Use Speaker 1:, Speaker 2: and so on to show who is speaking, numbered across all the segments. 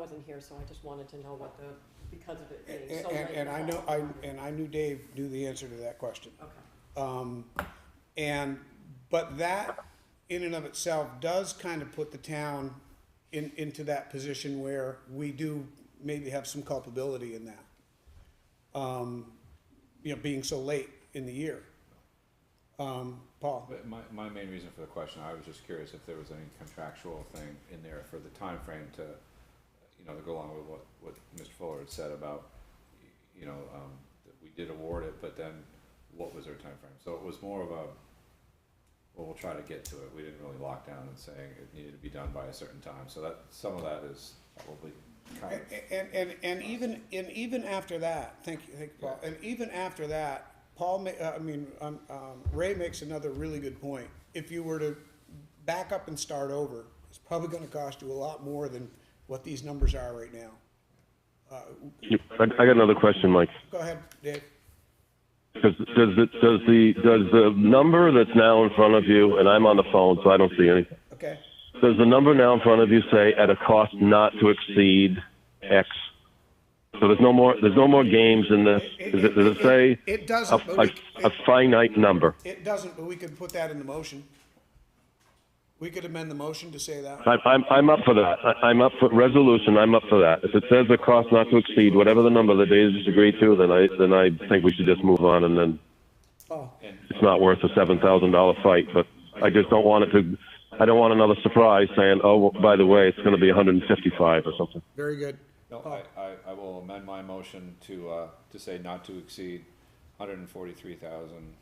Speaker 1: wasn't here, so I just wanted to know what the, because of it being
Speaker 2: And,
Speaker 1: so late.
Speaker 2: and I know, I, and I knew Dave knew the answer to that question.
Speaker 1: Okay.
Speaker 2: Um, and, but that in and of itself does kind of put the town in, into that position where we do maybe have some culpability in that. Um, you know, being so late in the year. Um, Paul?
Speaker 3: But my, my main reason for the question, I was just curious if there was any contractual thing in there for the time frame to, you know, to go along with what, what Mr. Fuller had said about, you know, um, that we did award it, but then what was our time frame? So it was more of a, well, we'll try to get to it. We didn't really lock down and saying it needed to be done by a certain time. So that, some of that is probably kind of,
Speaker 2: And, and, and even, and even after that, thank you, thank you, Paul, and even after that, Paul, ma- uh, I mean, um, um, Ray makes another really good point. If you were to back up and start over, it's probably gonna cost you a lot more than what these numbers are right now.
Speaker 4: I, I got another question, Mike.
Speaker 2: Go ahead, Dave.
Speaker 4: Does, does, the, does the does the number that's now in front of you, and I'm on the phone, so I don't see anything.
Speaker 2: Okay,
Speaker 4: Does the number now in front of you say at a cost not to exceed X? So there's no more there's no more games in this. Does it, does it say
Speaker 2: it
Speaker 4: a,
Speaker 2: doesn't, but we,
Speaker 4: a, a
Speaker 2: it-
Speaker 4: finite number?
Speaker 2: it doesn't, but we could put that in the motion. We could amend the motion to say that.
Speaker 4: I, I'm I'm up for that. I, I'm up for resolution. I'm up for that. If it says a cost not to exceed whatever the number the data is agreed to, then I then I think we should just move on and then
Speaker 2: Oh,
Speaker 4: it's not worth a seven thousand dollar fight. But I just don't want it to. I don't want another surprise saying, "Oh, well, by the way, it's going to be one hundred and fifty-five or something."
Speaker 2: very good.
Speaker 3: no, I, I, I will amend my motion to, uh, to say not to exceed hundred and forty-three thousand,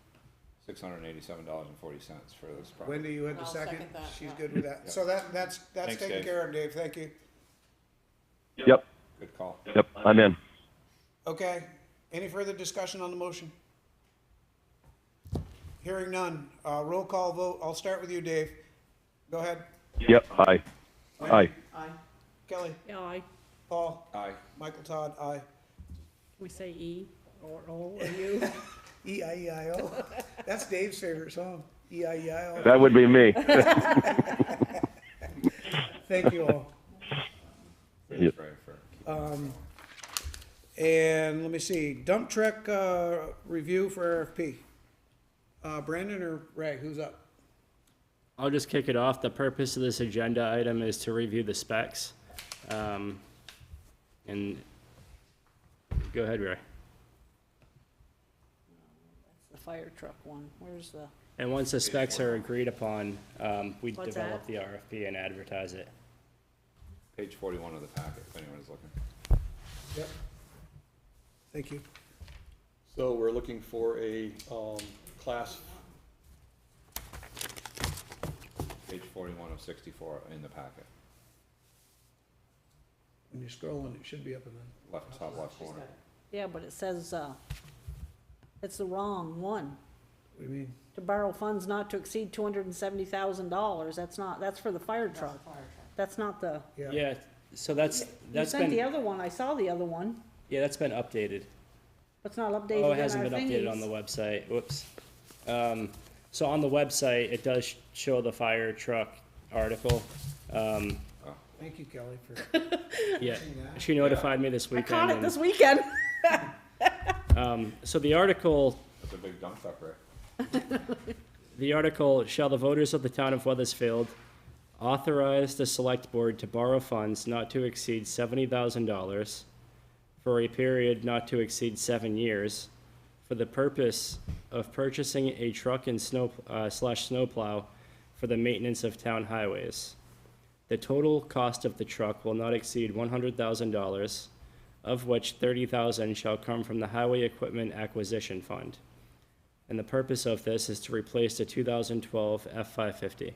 Speaker 3: six hundred and eighty-seven dollars and forty cents for this project.
Speaker 2: Wendy, you had the
Speaker 1: I'll
Speaker 2: second?
Speaker 1: second that,
Speaker 2: She's
Speaker 1: yeah.
Speaker 2: good with that. So that, that's, that's
Speaker 3: Thanks,
Speaker 2: taken
Speaker 3: Dave.
Speaker 2: care of, Dave, thank you.
Speaker 4: Yep,
Speaker 3: Good call.
Speaker 4: yep, I'm in.
Speaker 2: Okay, any further discussion on the motion? Hearing none, uh, roll call vote, I'll start with you, Dave. Go ahead,
Speaker 4: Yep, aye, aye.
Speaker 1: Aye.
Speaker 2: Kelly,
Speaker 5: Yeah, I,
Speaker 2: Paul,
Speaker 3: Aye.
Speaker 2: Michael Todd, aye.
Speaker 5: we say E or O or U.
Speaker 2: E I E I O, that's Dave's favorite song, E I E I O.
Speaker 4: That would be me.
Speaker 2: Thank you all.
Speaker 3: Very brave for-
Speaker 2: And let me see, dump truck, uh, review for RFP. Uh, Brandon or Ray, who's up?
Speaker 6: I'll just kick it off. The purpose of this agenda item is to review the specs. Um, And, go ahead, Ray.
Speaker 5: The fire truck one, where's the?
Speaker 6: And once the specs are agreed upon, um, we
Speaker 5: What's
Speaker 6: develop
Speaker 5: that?
Speaker 6: the RFP and advertise it.
Speaker 3: Page forty-one of the packet, if anyone is looking.
Speaker 2: Yep. Thank you.
Speaker 7: So we're looking for a, um, class,
Speaker 3: Page forty-one of sixty-four in the packet,
Speaker 2: When you're scrolling, it should be up in the,
Speaker 3: left, top left
Speaker 1: She's got
Speaker 3: corner.
Speaker 1: it.
Speaker 5: Yeah, but it says, uh, it's the wrong one.
Speaker 2: what do you mean?
Speaker 5: To borrow funds not to exceed two hundred and seventy thousand dollars, that's not, that's for the fire truck. That's not the,
Speaker 6: Yeah, so that's,
Speaker 5: you
Speaker 6: that's
Speaker 5: sent the
Speaker 6: been,
Speaker 5: other one, I saw the other one,
Speaker 6: yeah, that's been updated.
Speaker 5: but it's not updated in
Speaker 6: Oh,
Speaker 5: our
Speaker 6: it hasn't been updated on
Speaker 5: thingies.
Speaker 6: the website, whoops. Um, so on the website, it does sh- show the fire truck article. Um,
Speaker 2: Thank you, Kelly, for.
Speaker 6: yeah, she notified me this
Speaker 5: I
Speaker 6: weekend.
Speaker 5: caught it
Speaker 6: and-
Speaker 5: this weekend.
Speaker 6: So the article,
Speaker 3: That's a big dump truck, right?
Speaker 6: the article, shall the voters of the town of Weathersfield authorize the select board to borrow funds not to exceed seventy thousand dollars for a period not to exceed seven years for the purpose of purchasing a truck and snow, uh, slash snowplow for the maintenance of town highways. The total cost of the truck will not exceed one hundred thousand dollars, of which thirty thousand shall come from the Highway Equipment Acquisition Fund. And the purpose of this is to replace the two thousand twelve F five fifty.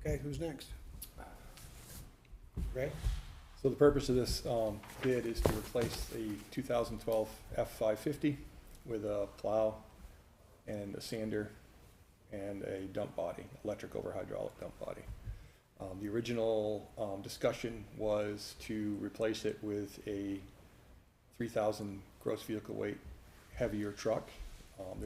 Speaker 2: Okay, who's next? Ray?
Speaker 7: so the purpose of this, um, bid is to replace the two thousand twelve F-550 with a plow and a sander and a dump body, electric over hydraulic dump body. Um, the original, um, discussion was to replace it with a three thousand gross vehicle weight heavier truck. Um, there's